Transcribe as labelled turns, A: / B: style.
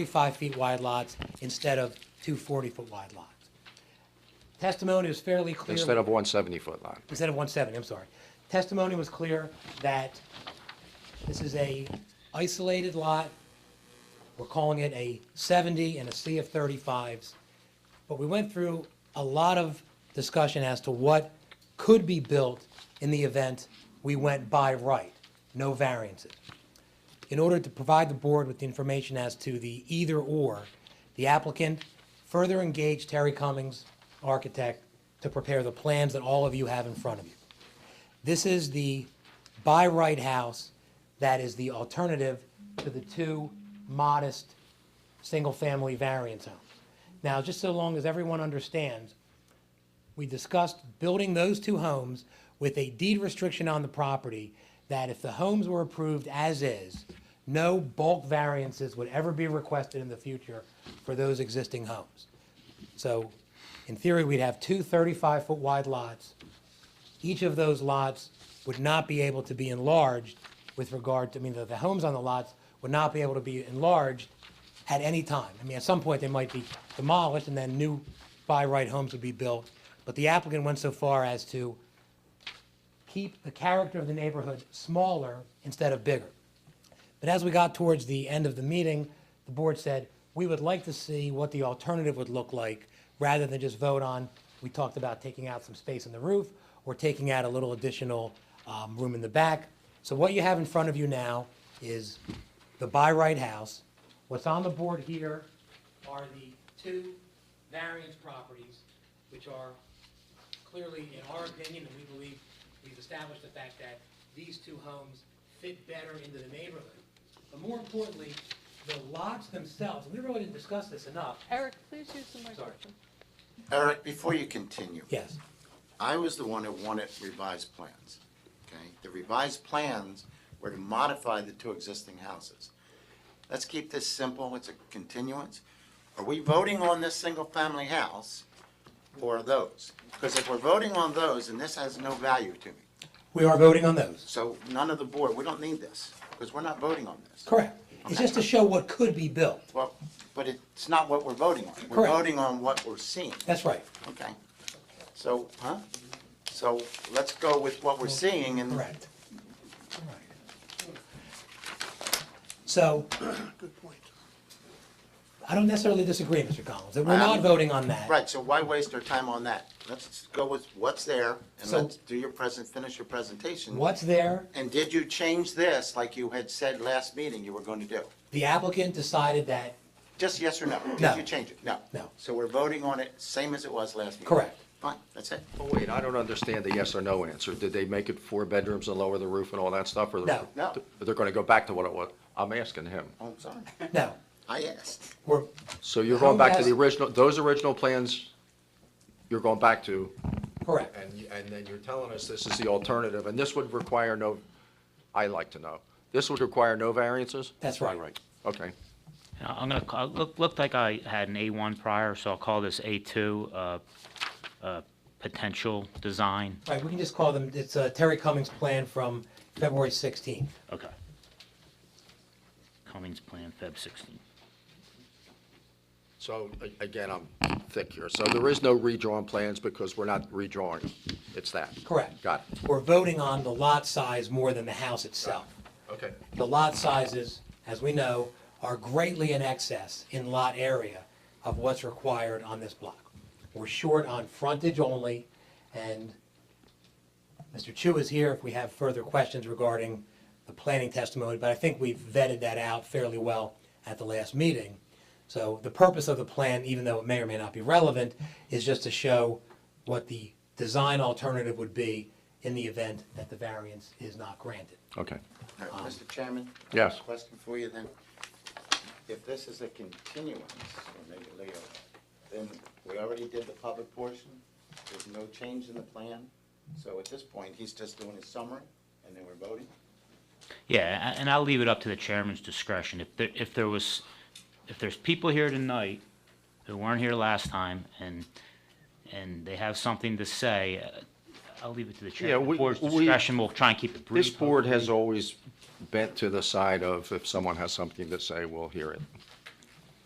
A: 35 feet wide lots instead of two 40-foot wide lots. Testimony was fairly clear.
B: Instead of one 70-foot lot.
A: Instead of 170, I'm sorry. Testimony was clear that this is a isolated lot. We're calling it a 70 and a sea of 35s. But we went through a lot of discussion as to what could be built in the event we went by right, no variances. In order to provide the board with the information as to the either/or, the applicant further engaged Terry Cummings, architect, to prepare the plans that all of you have in front of you. This is the by right house that is the alternative to the two modest, single-family variance homes. Now, just so long as everyone understands, we discussed building those two homes with a deed restriction on the property that if the homes were approved as is, no bulk variances would ever be requested in the future for those existing homes. So in theory, we'd have two 35-foot wide lots. Each of those lots would not be able to be enlarged with regard to, I mean, the, the homes on the lots would not be able to be enlarged at any time. I mean, at some point, they might be demolished and then new by right homes would be built. But the applicant went so far as to keep the character of the neighborhood smaller instead of bigger. But as we got towards the end of the meeting, the board said, we would like to see what the alternative would look like, rather than just vote on, we talked about taking out some space in the roof, or taking out a little additional um, room in the back. So what you have in front of you now is the by right house. What's on the board here are the two variance properties, which are clearly, in our opinion, and we believe we've established the fact that these two homes fit better into the neighborhood. But more importantly, the lots themselves, and we really didn't discuss this enough.
C: Eric, please use the
A: microphone.
D: Eric, before you continue,
A: Yes,
D: I was the one who wanted revised plans, okay? The revised plans were to modify the two existing houses. Let's keep this simple, it's a continuance. Are we voting on this single-family house or those? Because if we're voting on those, and this has no value to me,
A: we are voting on those.
D: so none of the board, we don't need this, because we're not voting on this.
A: Correct. It's just to show what could be built.
D: Well, but it's not what we're voting on. We're
A: Correct.
D: voting on what we're seeing.
A: That's right.
D: Okay. So, huh? So let's go with what we're seeing and.
A: Correct. So. I don't necessarily disagree, Mr. Collins, that we're not
D: Um,
A: voting on that.
D: Right, so why waste our time on that? Let's go with what's there and
A: So-
D: let's do your present, finish your presentation.
A: What's there,
D: And did you change this like you had said last meeting you were going to do?
A: the applicant decided that,
D: Just yes or no?
A: No.
D: Did you change it? No.
A: No.
D: So we're voting on it same as it was last meeting?
A: Correct.
D: Fine, that's it.
B: Oh, wait, I don't understand the yes or no answer. Did they make it four bedrooms and lower the roof and all that stuff? or they're-
A: No.
D: No.
B: They're going to go back to what it was? I'm asking him.
D: Oh, I'm sorry.
A: no,
D: I asked.
A: we're,
B: So you're
A: How
B: going back to the
A: has-
B: original, those original plans, you're going back to,
A: correct.
B: and, you- and then you're telling us this is the alternative, and this would require no, I like to know, this would require no variances?
A: That's right.
B: Right, okay.
E: Now, I'm gonna, call- look, looked like I had an A1 prior, so I'll call this A2, uh, uh, potential design.
A: Right, we can just call them, it's uh, Terry Cummings' plan from February 16th.
E: Okay. Cummings Plan, Feb. 16.
B: So, a- again, I'm thick here. So there is no redrawn plans because we're not redrawing. It's that.
A: Correct.
B: Got it.
A: We're voting on the lot size more than the house itself.
B: Okay.
A: The lot sizes, as we know, are greatly in excess in lot area of what's required on this block. We're short on frontage only, and Mr. Chu is here if we have further questions regarding the planning testimony, but I think we've vetted that out fairly well at the last meeting. So the purpose of the plan, even though it may or may not be relevant, is just to show what the design alternative would be in the event that the variance is not granted.
B: Okay.
D: All right, Mr. Chairman?
B: Yes.
D: Question for you then. If this is a continuance, or maybe Leo, then we already did the public portion. There's no change in the plan. So at this point, he's just doing his summary and then we're voting.
E: Yeah, a- and I'll leave it up to the chairman's discretion. If there, if there was, if there's people here tonight who weren't here last time and, and they have something to say, uh, I'll leave it to the chairman.
B: we-
E: The board's
B: we-
E: discretion, we'll try and keep it brief.
B: This board has always bent to the side of if someone has something to say, we'll hear it.